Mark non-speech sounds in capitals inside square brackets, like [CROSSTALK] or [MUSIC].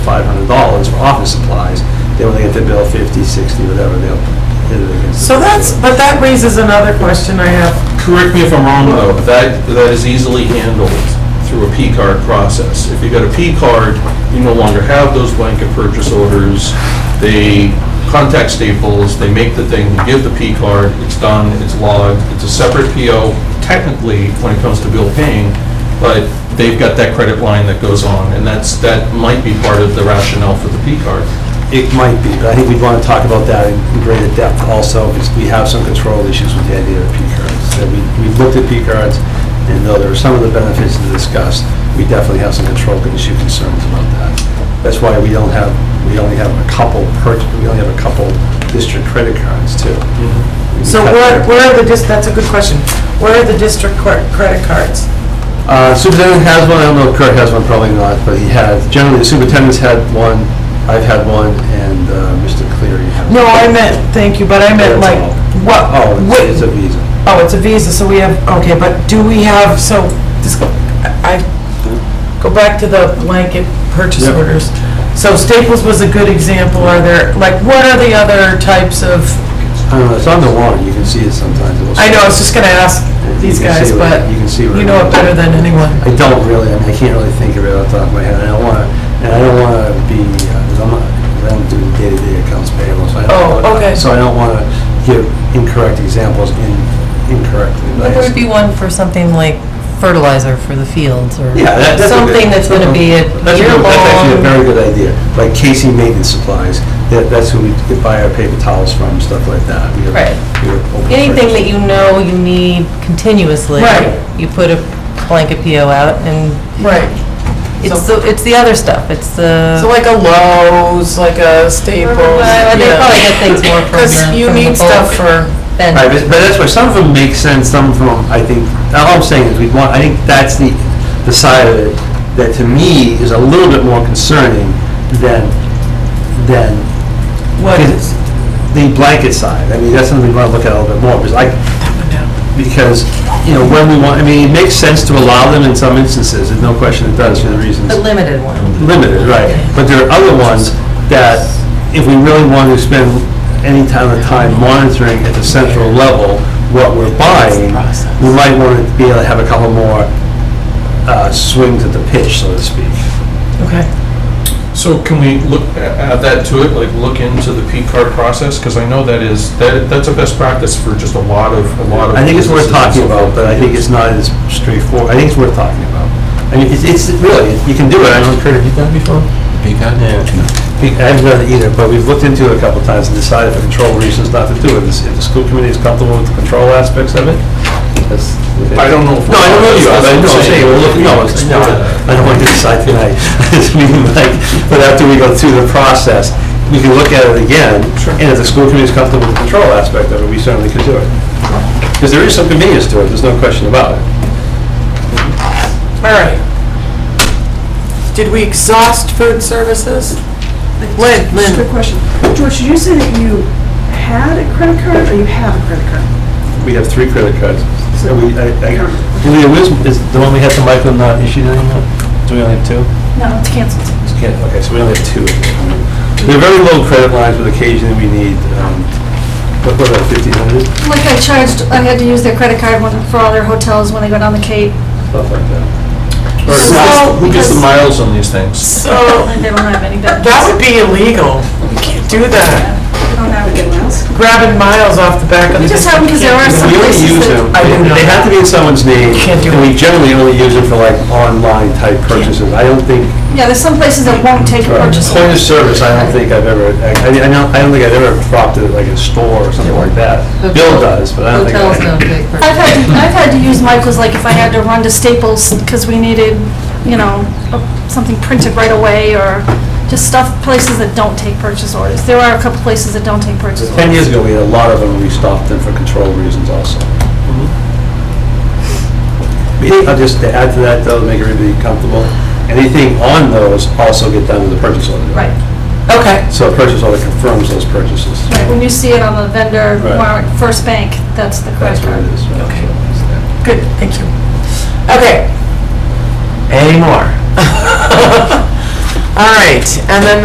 five hundred dollars for office supplies, then when they get their bill fifty, sixty, whatever, they'll hit it against. So that's, but that raises another question I have. Correct me if I'm wrong, though, but that, that is easily handled through a P-card process. If you got a P-card, you no longer have those blanket purchase orders. They contact Staples, they make the thing, you give the P-card, it's done, it's logged, it's a separate PO technically when it comes to bill paying, but they've got that credit line that goes on, and that's, that might be part of the rationale for the P-card. It might be, but I think we'd want to talk about that in greater depth also, because we have some control issues with the idea of P cards. That we, we've looked at P cards, and though there are some of the benefits to discuss, we definitely have some control issue concerns about that. That's why we don't have, we only have a couple per, we only have a couple district credit cards too. Mm-hmm. So where, where are the, dis- that's a good question. Where are the district cor- credit cards? Uh, Superintendent has one, I don't know if Kurt has one, probably not, but he has, generally the superintendent's had one, I've had one, and uh, Mr. Cleary has. No, I meant, thank you, but I meant That's like, all. what? Oh, what- it's it's a Visa. Oh, it's a Visa, so we have, okay, but do we have, so, this, I, go back to the blanket purchase Yep. orders. So Staples was a good example, are there, like, what are the other types of, I don't know, it's on the warrant, you can see it sometimes. it'll I know, I say- was just gonna ask these You can guys, see what- but You can see. what you know it better than anyone. I don't really, I mean, I can't really think of it off the top of my head, I don't wanna, and I don't wanna be, uh, 'cause I'm not, 'cause I don't do day-to-day accounts payable, so I don't. Oh, wanna- okay. So I don't wanna give incorrect examples in, incorrectly. but I There would just- be one for something like fertilizer for the fields or Yeah, that- that's a good- something that's going to be a That's a good- That's actually a very year-long. good idea, like Casey Maintenance Supplies, that, that's who we could buy our paper towels from, stuff like that. We have- Right. we have open Anything that purchase. you know you need continuously. Right. You put a blanket PO out and Right. it's the, it's the other stuff. It's the. So like a Lowe's, like a Staples. Well, They yeah. probably get things [LAUGHS] more from the. Because you from the need stuff bulk for, vendors. Right, but but that's why, some of them make sense, some of them, I think, all I'm saying is we want, I think that's the, the side of it that to me is a little bit more concerning than, than what is? the blanket side. I mean, that's something we want to look at a little bit more, because I, because, you know, when we want, I mean, it makes sense to allow them in some instances, there's no question it does for the reasons. The limited one. Limited, right. But there are other ones that if we really want to spend any time of time monitoring at the central level what we're buying, we might want to be able to have a couple more uh, swings at the pitch, so to speak. Okay. So can we look, add that to it, like look into the P-card process? Because I know that is, that, that's a best practice for just a lot of, a lot of. I think it's worth businesses talking and so about, forth. but I think it's not as straightforward. I think it's worth talking about. I mean, it's, it's really, you can do it. I don't, Kurt, have you done it before? Pecan? We- I haven't done it either, but we've looked into it a couple of times and decided for control reasons not to do it. Is- If the school committee is comfortable with the control aspects of it, that's... I don't know if- No, I don't know you, are, but I know, I'm saying, we'll look, no, it's- no, I don't want to decide tonight. [LAUGHS] It's meeting, like, But after we go through the process, we can look at it again. And if the school committee is comfortable with the control aspect of it, we certainly could do it. Because there is some convenience to it, there's no question about it. All right. Did we exhaust food services? Lynn, Just a Lynn, quick question. George, did you say that you had a credit card or you have a credit card? We have three credit cards. So we, I, I, Leah, where's- is the one we had from Michael not issued anymore? Do we only have two? No, it's canceled. Just can't- Okay, so we only have two. They're very low credit lines, but occasionally we need, um, what, what about fifteen hundred, Like I charged, I had to use their credit card when- for all their hotels when they go down the Cape. stuff like that. Or who gets- Who gets the miles on these things? so And [LAUGHS] they don't have any debit. that would be illegal. You can't do that. don't have anything else? Grabbing miles off the back of the. You just have them because there are some We only places use them, that- I didn't know they have to be in someone's name, Can't do and we it. generally only use it for like online type purchases. I don't think, uh, Yeah, there's some places that won't take a purchase. point of service, I don't think I've ever, I, I don't, I don't think I've ever dropped it at like a store or something like that. Bill does, but I don't think. I- Hotels don't take. I've purchase. had, I've had to use Michael's, like if I had to run to Staples because we needed, you know, a- something printed right away or just stuff, places that don't take purchase orders. There are a couple places that don't take purchase orders. 10 years ago, we had a lot of them, we stopped them for control reasons also. We- I'll just to add to that, though, to make everybody comfortable, anything on those also get done with the purchase order. Right, Okay, So a purchase order confirms those purchases. right. When you see it on the vendor Right. warrant, First Bank, that's the That's credit what it is. card. Okay. good, thank you. Okay, Any more? Um, [LAUGHS] All right, and then